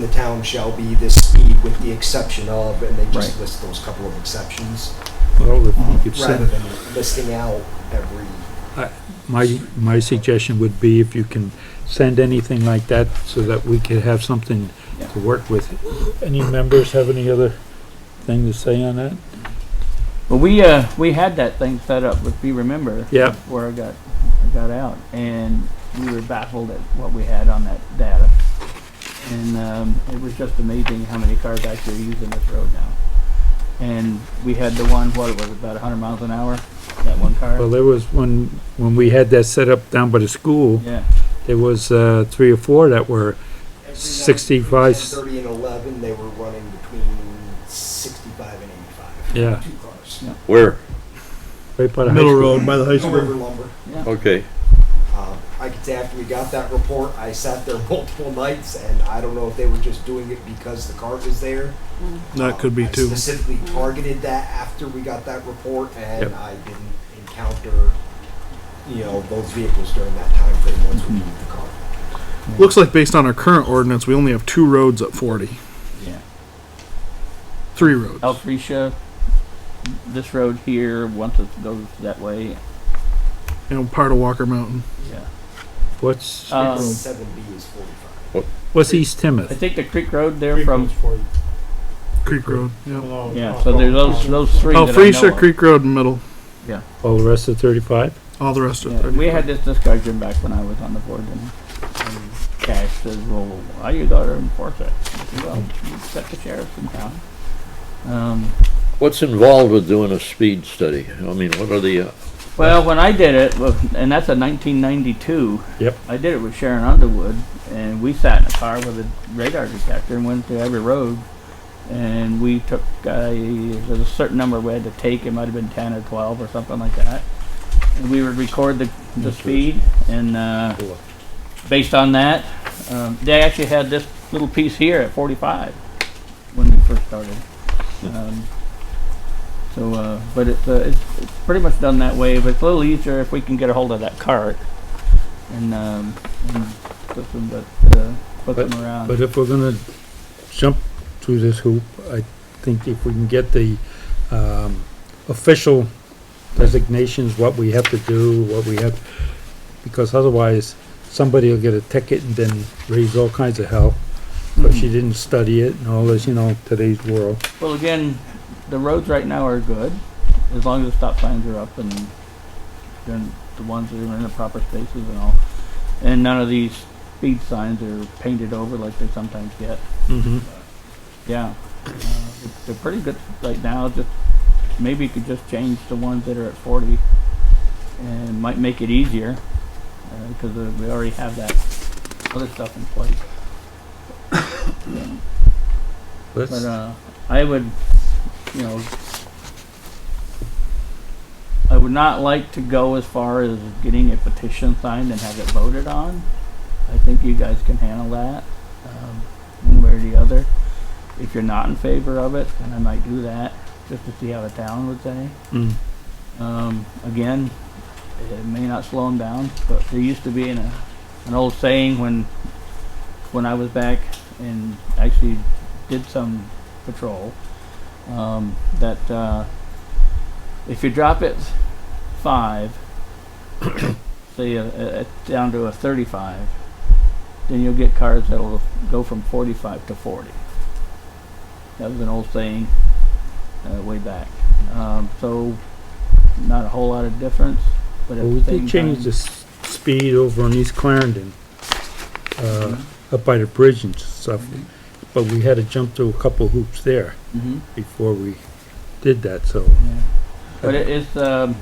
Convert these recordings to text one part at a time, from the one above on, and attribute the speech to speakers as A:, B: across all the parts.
A: the town shall be this speed with the exception of, and they just
B: Right.
A: list those couple of exceptions,
C: Well, if you could
A: rather
C: send,
A: than listing out every,
C: my, my suggestion would be if you can send anything like that so that we could have something
B: Yeah.
C: to work with. Any members have any other thing to say on that?
B: Well, we, uh, we had that thing set up, if you remember.
C: Yeah.
B: Where I got, I got out, and we were baffled at what we had on that data. And, um, it was just amazing how many cars actually are using this road now. And we had the one, what was it, about hundred miles an hour, that one
C: Well,
B: car?
C: there was one, when we had that set up down by the school,
B: Yeah,
C: there was, uh, three or four that were,
A: every
C: 65.
A: 10, 30 and 11, they were running between 65 and 85.
C: Yeah.
A: Two cars.
D: Where?
C: right by the high
E: Middle
C: school.
E: Road by the high
A: No river
E: school.
A: lumber.
D: Okay.
A: Um, I could say after we got that report, I sat there multiple nights, and I don't know if they were just doing it because the cart was there.
E: That
A: Um,
E: could be
A: I
E: too.
A: Specifically targeted that after we got that report, and
C: Yep.
A: I didn't encounter, you know, those vehicles during that time frame once we moved the cart.
E: Looks like based on our current ordinance, we only have two roads at forty.
B: yeah.
E: Three roads.
B: Oh. Alphresia, this road here, once it goes that way,
E: And part of Walker Mountain.
B: yeah.
C: What's,
B: Um,
A: Seven B is forty-five.
C: what's East
B: I
C: Timoth?
B: think the Creek Road there from,
E: Creek Road. Yeah.
B: yeah, so there's those, those three that I know
E: Alphresia,
B: of.
E: Oh, Creek Road in the middle.
C: All the rest of thirty-five?
E: All the rest of
B: Yeah,
E: it.
B: we had this discussion back when I was on the board, and, and Cash says, "Well, why you gotta enforce it?" I said, well, you set the sheriffs in town. Um,
D: What's involved with doing a speed study? I mean, what are the, uh,
B: well, when I did it, well, and that's a 1992.
C: Yep.
B: I did it with Sharon Underwood, and we sat in a car with a radar detector and went to every road, and we took uh, there's a certain number we had to take. It might have been 10 or 12 or something like that. And we would record the, the speed and. Uh, based on that, um, they actually had this little piece here at 45 when we first started. Um, so, uh, but it's, uh, it's, it's pretty much done that way. But it's a little easier if we can get a hold of that cart and, um, and flip them, but, uh, flip
C: But-
B: them around.
C: But if we're gonna jump through this hoop, I think if we can get the, um, official designations, what we have to do, what we have, because otherwise, somebody will get a ticket and then raise all kinds of hell. But
B: Mm-hmm.
C: she didn't study it and all this, you know, today's world.
B: well, again, the roads right now are good as long as the stop signs are up and they're the ones that are in the proper spaces and all. And none of these speed signs are painted over like they sometimes get.
C: Mm-hmm.
B: Yeah, uh, it's- they're pretty good right now. Just maybe you could just change the ones that are at 40, and might make it easier because uh, we already have that other stuff in place. But uh, I would, you know, I would not like to go as far as getting a petition signed and have it voted on. I think you guys can handle that, um, one way or the other. If you're not in favor of it, then I might do that, just to see how the town would say.
C: Mm.
B: Um, again, it may not slow them down, but there used to be an, uh, an old saying when, when I was back and actually did some patrol, um, that, uh, if you drop it five, say, uh, uh, down to a thirty-five, then you'll get cars that'll go from forty-five to forty. That was an old saying, uh, way back. Um, so, not a whole lot of difference, but at
C: Well, we
B: the same
C: did change
B: time.
C: the s- speed over on East Clarendon, uh,
B: Mm-hmm.
C: up by the bridge and stuff, but we had to jump through a couple hoops there
B: Mhm.
C: before we did that, so.
B: Yeah. But it, it's, um,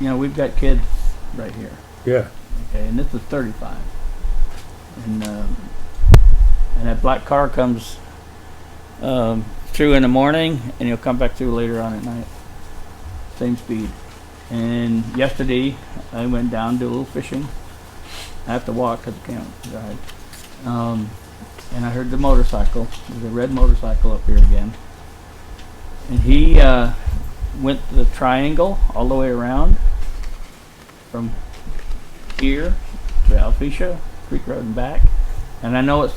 B: you know, we've got kids right here.
C: Yeah,
B: Okay, and this is 35. And um, and that black car comes um, through in the morning, and he'll come back through later on at night. Same speed. And yesterday, I went down to a little fishing. I have to walk because I can't drive. Um, and I heard the motorcycle. There's a red motorcycle up here again. And he uh, went the triangle all the way around from here to Alphresia, Creek Road and back. And I know it's